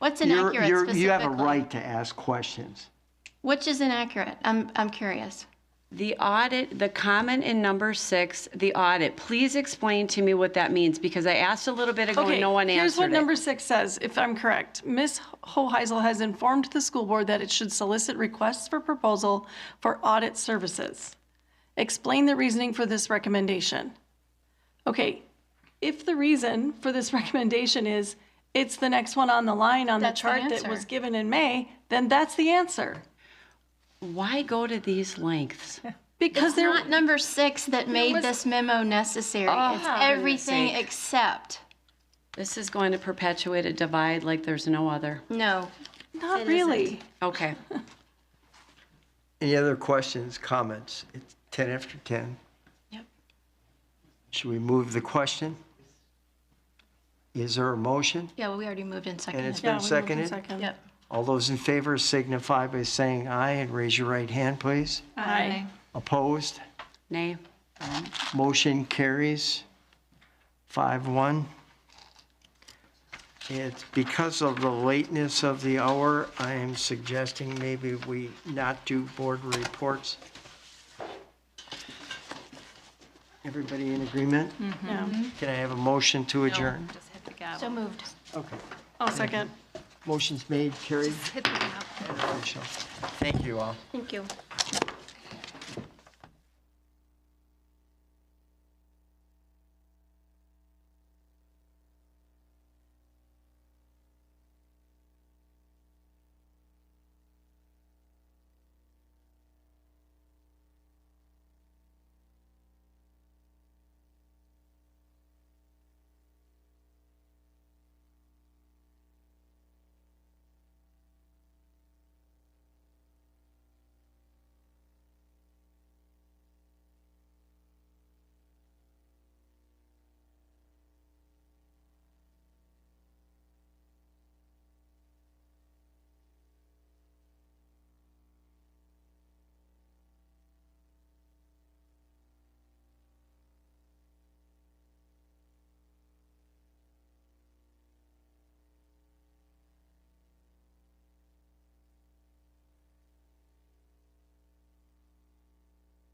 What's You're- inaccurate you're- specifically? You have a right to ask questions. Which is inaccurate? I'm, I'm curious. The audit, the comment in number six, the audit, please explain to me what that means, because I asked a little bit ago and no one Here's what answered number it. six says, if I'm correct. Ms. Hoheisel has informed the school board that it should solicit requests for proposal for audit services. Explain the reasoning for this recommendation. Okay, if the reason for this recommendation is it's the next one on the line on the That's the chart that was answer. given in May, then that's the answer. Why go to these lengths? Because It's there, not number six that made was- this memo necessary. It's everything except, This is going to perpetuate a divide like there's no other. no. not really. Okay. Any other questions, comments? It's 10 after 10. Yep. Should we move the question? Is there a motion? Yeah, well, we already moved in And it's second. Yeah, been we moved in seconded? second. Yep. All those in favor signify by saying aye and raise your right hand, please. Aye. Opposed? Nay. Motion carries five one. It's because of the lateness of the hour, I am suggesting maybe we not do board reports. Everybody in agreement? Yeah. Can I have a motion to adjourn? So moved. Okay. I'll second. Motion's made, carried. Official. Thank you all. Thank you.